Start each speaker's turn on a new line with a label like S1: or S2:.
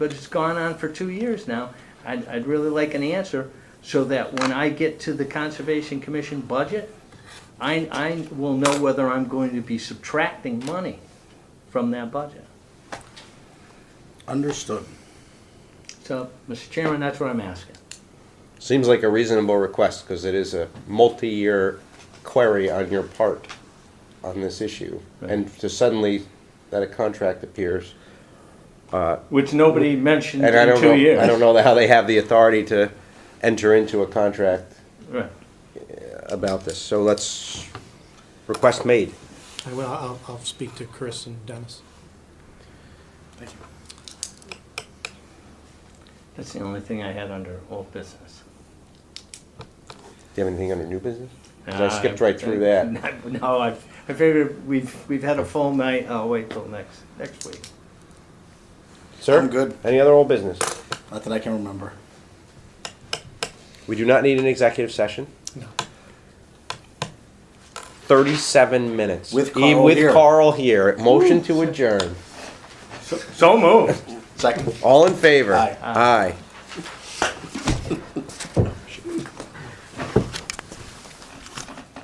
S1: but it's gone on for two years now. I'd, I'd really like an answer so that when I get to the Conservation Commission budget, I, I will know whether I'm going to be subtracting money from that budget.
S2: Understood.
S1: So, Mr. Chairman, that's what I'm asking.
S3: Seems like a reasonable request because it is a multi-year query on your part on this issue. And to suddenly that a contract appears,
S1: Which nobody mentioned
S3: and I
S1: in
S3: don't
S1: two years.
S3: know, I don't know how they have the authority to enter into a contract
S1: Right.
S3: about this. So let's, request made.
S4: I will, I'll, I'll speak to Chris and Dennis.
S1: That's the only thing I had under old business.
S3: Do you have anything under new business? 'Cause
S1: Uh,
S3: I skipped right through that.
S1: No, I, I figured we've, we've had a full night, I'll wait till next, next week.
S3: Sir?
S2: I'm good.
S3: Any other old business?
S2: Not that I can remember.
S3: We do not need an executive session.
S4: No.
S3: Thirty-seven minutes.
S2: With
S3: E-
S2: Carl here.
S3: With Carl here. Motion to adjourn.
S1: So moved.
S2: Second.
S3: All in favor?
S2: Aye.
S3: Aye.